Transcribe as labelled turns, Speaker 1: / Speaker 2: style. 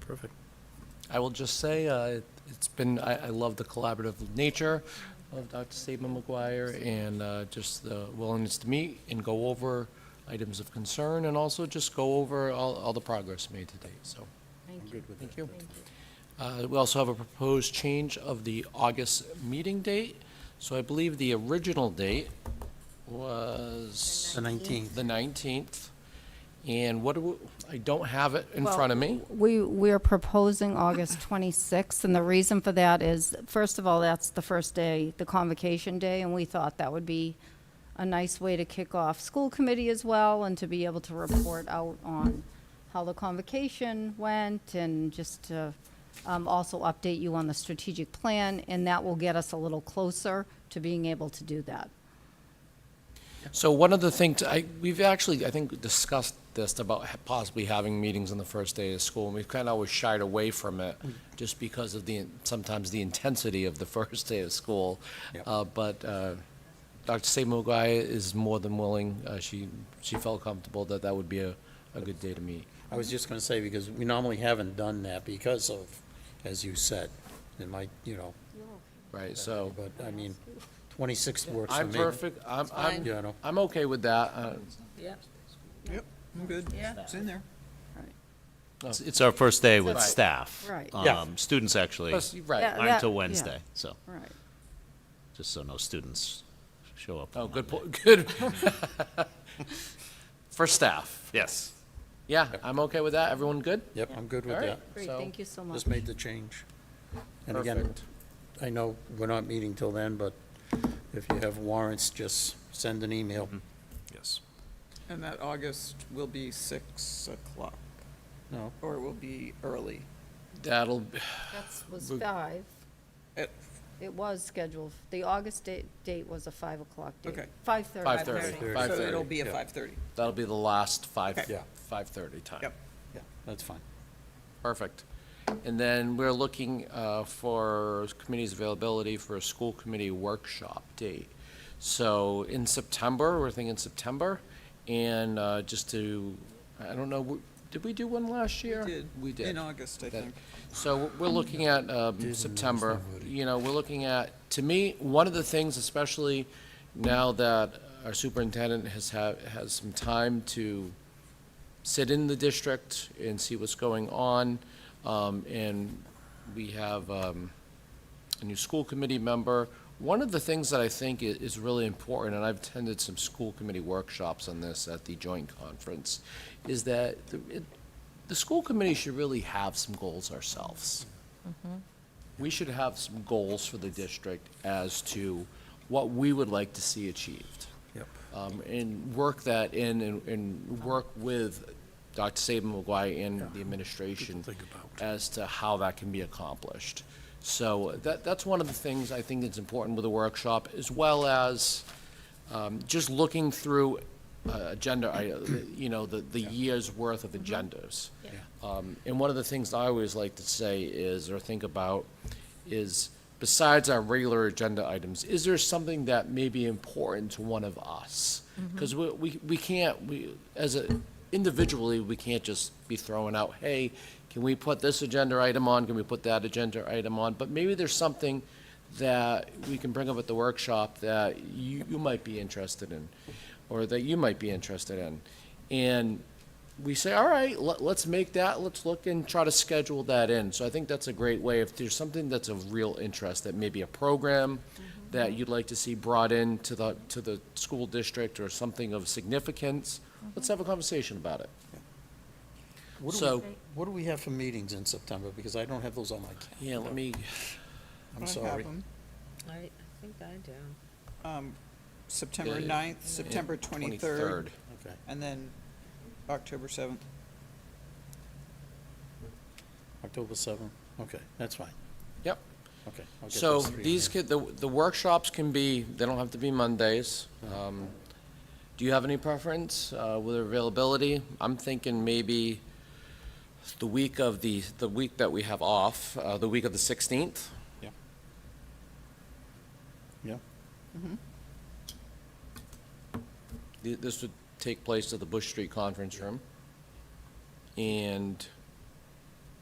Speaker 1: Perfect.
Speaker 2: I will just say, uh, it- it's been, I, I love the collaborative nature of Dr. Saban McGuire and uh, just the willingness to meet and go over items of concern and also just go over all, all the progress made to date, so,
Speaker 1: I'm
Speaker 3: Thank you.
Speaker 1: good with that.
Speaker 2: thank you.
Speaker 3: Thank you.
Speaker 2: Uh, We also have a proposed change of the August meeting date. So I believe the original date was
Speaker 1: The 19th.
Speaker 2: the 19th. And what, do we- I don't have it in front of me.
Speaker 3: We, we're proposing August 26th, and the reason for that is, first of all, that's the first day, the convocation day, and we thought that would be a nice way to kick off school committee as well, and to be able to report out on how the convocation went, and just to um, also update you on the strategic plan, and that will get us a little closer to being able to do that.
Speaker 2: So one other thing, to- I, we've actually, I think, discussed this about ha- possibly having meetings on the first day of school, and we've kind of always shied away from it,
Speaker 1: Mm.
Speaker 2: just because of the, sometimes the intensity of the first day of school.
Speaker 1: Yep.
Speaker 2: Uh, But uh, Dr. Saban Maguire is more than willing, uh, she, she felt comfortable that that would be a, a good day to meet.
Speaker 1: I was just gonna say, because we normally haven't done that because of, as you said, it might, you know,
Speaker 2: Right, so,
Speaker 1: but I mean, twenty-sixth works for
Speaker 2: I'm
Speaker 1: me.
Speaker 2: perfect, I'm, I'm,
Speaker 1: Yeah, I know.
Speaker 2: I'm okay with that. Uh,
Speaker 4: Yep, I'm good. Yeah. It's in there.
Speaker 5: It's- It's our first day with
Speaker 2: Right.
Speaker 5: staff.
Speaker 3: Right.
Speaker 1: Yeah.
Speaker 5: Um, Students actually
Speaker 2: plus, Right,
Speaker 3: Yeah.
Speaker 5: aren't
Speaker 3: that-
Speaker 5: until
Speaker 3: yeah.
Speaker 5: Wednesday, so,
Speaker 3: Right.
Speaker 5: just so no students show up.
Speaker 2: oh,
Speaker 5: on
Speaker 2: good,
Speaker 5: Monday.
Speaker 2: po- good. For staff,
Speaker 5: Yes.
Speaker 2: yeah, I'm okay with that, everyone good?
Speaker 1: Yep, I'm good with
Speaker 2: All
Speaker 1: that.
Speaker 2: right.
Speaker 3: Great,
Speaker 2: So-
Speaker 3: thank you so much.
Speaker 1: Just made the change. And again,
Speaker 2: Perfect.
Speaker 1: I know we're not meeting till then, but if you have warrants, just send an email.
Speaker 2: Mm-hmm.
Speaker 5: Yes.
Speaker 4: And that August will be six o'clock,
Speaker 1: No,
Speaker 4: or it will be early.
Speaker 2: That'll,
Speaker 3: That was
Speaker 2: we-
Speaker 3: five.
Speaker 4: At-
Speaker 3: It was scheduled, the August date, date was a five o'clock date.
Speaker 4: Okay.
Speaker 3: Five thirty.
Speaker 2: 5:30.
Speaker 4: So
Speaker 2: 5:30,
Speaker 4: it'll be at
Speaker 1: yeah.
Speaker 4: five thirty.
Speaker 2: That'll be the last five,
Speaker 4: Okay.
Speaker 1: Yeah.
Speaker 2: five thirty time.
Speaker 4: Yep.
Speaker 1: yeah, that's fine.
Speaker 2: Perfect. And then we're looking uh, for committee's availability for a school committee workshop date. So in September, we're thinking September, and uh, just to, I don't know, w- did we do one last year? We did.
Speaker 4: In August, I
Speaker 2: That-
Speaker 4: think.
Speaker 2: So we're looking at um, September, you know, we're looking at, to me, one of the things, especially now that our superintendent has had, has some time to sit in the district and see what's going on, um, and we have um, a new school committee member. One of the things that I think i- is really important, and I've attended some school committee workshops on this at the joint conference, is that the- it- the school committee should really have some goals ourselves.
Speaker 1: Mm-hmm.
Speaker 2: We should have some goals for the district as to what we would like to see achieved.
Speaker 1: Yep.
Speaker 2: Um, And work that in and, and work with Dr. Saban McGuire and the administration
Speaker 1: Good to think about.
Speaker 2: as to how that can be accomplished. So uh, that, that's one of the things I think that's important with the workshop, as well as um, just looking through uh, agenda, I- you know, the, the year's worth of
Speaker 1: Mm-hmm.
Speaker 2: agendas. Um, And one of the things I always like to say is, or think about, is besides our regular agenda items, is there something that may be important to one of us? Because we, we we can't, we, as a, individually, we can't just be throwing out, hey, can we put this agenda item on, can we put that agenda item on? But maybe there's something that we can bring up at the workshop that you, you might be interested in, or that you might be interested in. And we say, all right, let, let's make that, let's look and try to schedule that in. So I think that's a great way, if there's something that's of real interest, that maybe a program that you'd like to see brought in to the, to the school district or something of significance, let's have a conversation about it.
Speaker 1: What do we-
Speaker 2: So-
Speaker 1: What do we have for meetings in September? Because I don't have those on my calendar.
Speaker 2: Yeah, let me,
Speaker 1: I'm
Speaker 4: I have
Speaker 1: sorry.
Speaker 4: 'em.
Speaker 6: I, I think I do.
Speaker 4: Um, September
Speaker 2: Yeah.
Speaker 4: ninth, September twenty-third,
Speaker 2: twenty-third.
Speaker 1: Okay.
Speaker 4: and then October seventh.
Speaker 1: October seventh, okay, that's fine,
Speaker 2: Yep.
Speaker 1: okay. I'll get
Speaker 2: So
Speaker 1: those three in
Speaker 2: these
Speaker 1: there.
Speaker 2: could, the, the workshops can be, they don't have to be Mondays. Um, Do you have any preference uh, with availability? I'm thinking maybe the week of the, the week that we have off, uh, the week of the 16th.
Speaker 1: Yeah,
Speaker 2: Th- This would take place at the Bush Street Conference Room. And